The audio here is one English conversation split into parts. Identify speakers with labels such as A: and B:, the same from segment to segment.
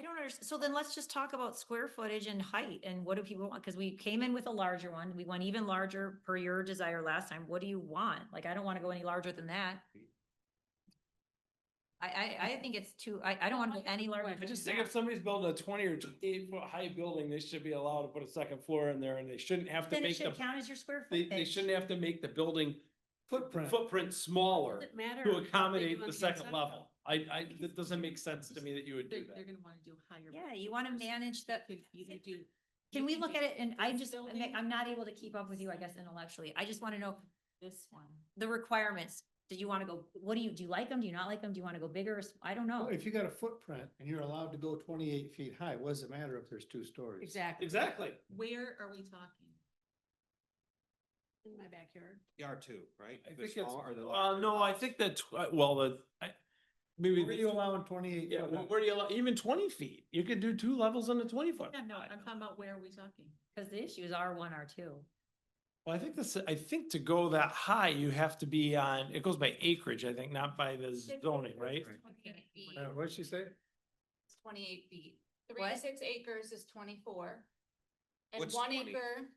A: unders, so then let's just talk about square footage and height and what do people want? Cause we came in with a larger one. We went even larger per your desire last time. What do you want? Like, I don't want to go any larger than that. I, I, I think it's too, I, I don't want to go any larger.
B: I
A: than
B: just think
A: that.
B: if somebody's building a twenty or twenty-eight foot high building, they should be allowed to put a second floor in there and they shouldn't have to
A: Then it
B: make the,
A: should count as your square
B: they,
A: footage.
B: they shouldn't have to make the building
C: Footprint.
B: footprint smaller
C: Doesn't matter.
B: to
C: if they
B: accommodate
C: do
B: the
C: on
B: second
C: outside.
B: level. I, I, that doesn't make sense to me that you would
C: They're,
B: do
C: they're
B: that.
C: gonna wanna do higher.
A: Yeah, you want to manage the,
C: Could either do.
A: can we look at it? And I
C: this
A: just, I'm-
C: building-
A: I'm not able to keep up with you, I guess intellectually. I just want to know
C: This one.
A: the requirements. Do you want to go, what do you, do you like them? Do you not like them? Do you want to go bigger? or s- I don't know.
D: Well, If you got a footprint and you're allowed to go twenty-eight feet high, what does it matter if there's two stories?
C: Exactly.
B: Exactly.
C: Where are we talking? In my backyard.
E: R two, right?
B: I
E: The
B: think it's,
E: small or the
B: uh,
E: larger?
B: no, I think that, uh, well, the, I, maybe.
D: Were you allowing twenty-eight?
B: Yeah, wh- where do you, allow- even twenty feet, you could do two levels on a twenty foot.
C: Yeah, no,
B: I-
C: I'm talking about where are we talking?
A: Cause the issue is R one, R two.
B: Well, I think this, I think to go that high, you have to be on, it goes by acreage, I think, not by the zoning, right?
D: Uh, what'd she say?
F: It's twenty-eight feet. Three to
A: What?
F: six acres is twenty-four. And
E: What's
F: one
E: 20?
F: acre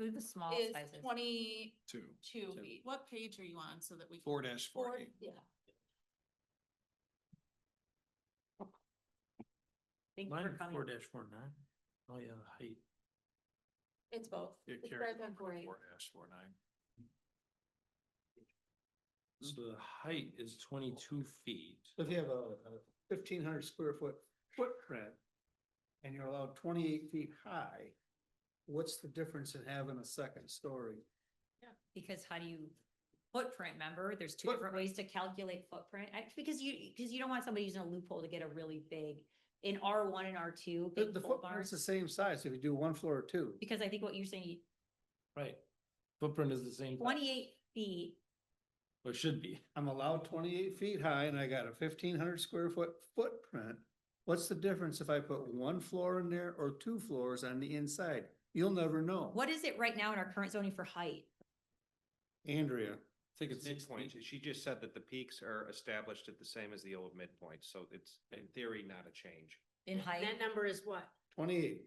A: Do the small
F: is
A: sizes.
F: twenty-two
E: Two. Two.
F: feet.
C: What page are you on so that we? can-
E: Four dash
F: Four,
E: forty.
F: yeah.
A: Thank you
B: Mine
A: for
B: is
A: coming.
B: four dash four nine. Oh, yeah, the height.
F: It's both.
E: It
F: It's
E: carries
F: right on four eight.
E: Four dash four nine.
B: So the height is twenty-two feet.
D: If you have a fifteen hundred square foot footprint and you're allowed twenty-eight feet high, what's the difference in having a second story?
A: Because how do you footprint, remember? There's two different ways to calculate footprint. I, because you, because you don't want somebody using a loophole to get a really big, in R one and R two,
D: The,
A: big
D: the
A: pole barns.
D: footprint's the same size if you do one floor or two.
A: Because I think what you're saying,
B: Right. Footprint is the same,
A: twenty-eight feet,
B: or should be.
D: I'm allowed twenty-eight feet high and I got a fifteen hundred square foot footprint. What's the difference if I put one floor in there or two floors on the inside? You'll never know.
A: what is it right now in our current zoning for height?
D: Andrea,
B: I think it's six
E: Midpoint,
B: point.
E: she just said that the peaks are established at the same as the old midpoint, so it's in theory not a change.
A: In height?
C: That number is what?
D: twenty-eight.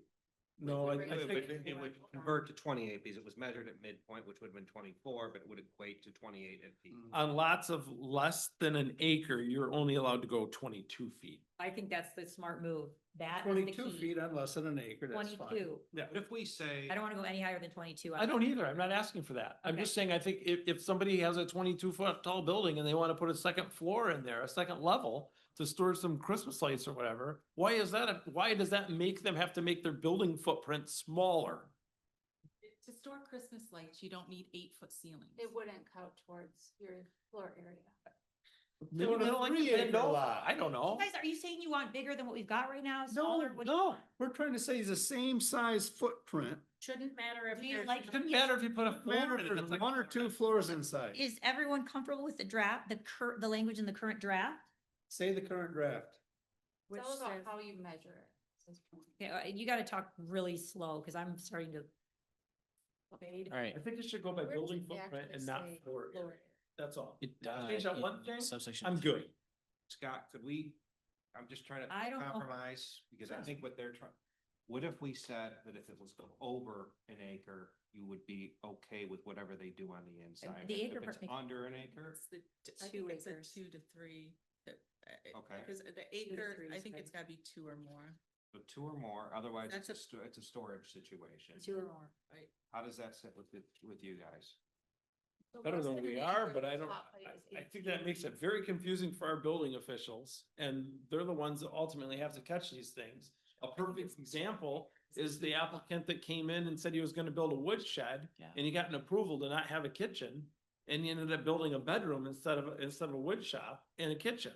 B: No, I,
E: It
B: I
E: would-
B: think,
E: it would convert to twenty-eight because it was measured at midpoint, which would have been twenty-four, but it would equate to twenty-eight at peak.
B: on lots of less than an acre, you're only allowed to go twenty-two feet.
A: I think that's the smart move. That is the
D: Twenty-two
A: key.
D: feet on less than an acre, that's fine.
A: Twenty-two.
B: Yeah.
E: But if we say.
A: I don't want to go any higher than twenty-two.
B: I don't either. I'm not asking for that. I'm
A: Okay.
B: just saying, I think if, if somebody has a twenty-two foot tall building and they want to put a second floor in there, a second level to store some Christmas lights or whatever, why is that, a- why does that make them have to make their building footprint smaller?
C: To store Christmas lights, you don't need eight foot ceilings.
F: It wouldn't count towards your floor area.
B: Maybe
D: on
B: they
D: a
B: don't like the
D: three-acre
B: Mendoza.
D: lot.
B: I don't know.
A: Guys, are you saying you want bigger than what we've got right now?
B: No,
A: Smaller? What do you
B: no,
A: want?
D: We're trying to say it's the same size footprint,
C: Shouldn't matter if
A: Do you
C: there's.
A: like
B: it doesn't matter if you put a
D: no
B: floor
D: matter
B: in
D: if
B: it.
D: there's
B: it's like-
D: one or two floors inside.
A: Is everyone comfortable with the draft, the cur, the language in the current draft?
D: Say the current draft.
F: It's
C: Which
F: all about
C: says-
F: how you measure it. Says point.
A: Yeah, uh, you gotta talk really slow, cause I'm starting to.
G: All right,
B: I think it should go by
F: Where
B: building
F: does it
B: footprint
F: actually
B: and not
F: say
B: floor area.
F: floor area?
B: That's all.
G: It, uh,
B: Change that one thing,
G: subsection.
B: I'm
G: three.
B: good.
E: Scott, could we, I'm just trying
A: I don't
E: to
A: know.
E: compromise, because I think what they're trying, what if we said that if it was over an acre, you would be okay with whatever they do on the inside?
A: the
E: If
A: acre
E: it's
A: part makes-
E: Under an acre,
C: It's the t-
A: I
C: two
A: think it's a
C: acres. Two to three. uh,
E: Okay.
C: Because the
A: to
C: acre,
A: three
C: I
A: is
C: think
A: fine.
C: it's gotta be two or more.
E: so two or more, otherwise
C: That's
E: it's a,
C: a-
E: sto- it's a storage situation.
A: Two or more.
C: Right.
E: How does that sit with, the- with you guys?
F: So
B: better
F: less
B: than
F: an
B: we are,
F: acre,
B: but I
F: the
B: don't,
F: top height is
B: I, I
F: eight
B: think that
F: feet.
B: makes it very confusing for our building officials, and they're the ones that ultimately have to catch these things. A perfect example is the applicant that came in and said he was gonna build a wood shed,
G: Yeah.
B: and he got an approval to not have a kitchen, and he ended up building a bedroom instead of, instead of a wood shop and a kitchen,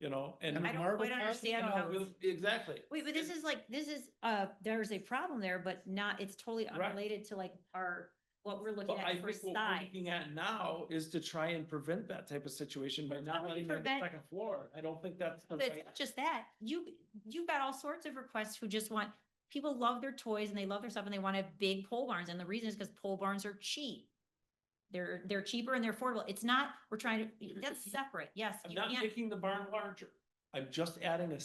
B: you know, and.
D: And
A: I
D: a
A: don't
D: marble
A: quite
D: house?
A: understand
B: Uh,
A: how.
B: with- Exactly.
A: Wait, but this is like, this is, uh, there's a problem there, but not, it's totally
B: Right.
A: unrelated to like our, what we're looking
B: But I
A: at for
B: think what we're
A: size.
B: looking at now is to try and prevent that type of situation by not
A: we
B: letting them have
A: prevent-
B: the second floor. I don't think that's. the
A: But
B: right-
A: it's not just that, you, you've got all sorts of requests who just want, people love their toys and they love their stuff and they want to have big pole barns, and the reason is because pole barns are cheap. They're, they're cheaper and they're affordable, it's not, we're trying to, that's separate, yes.
B: I'm
A: you
B: not
A: can't-
B: making the barn larger. I'm just adding a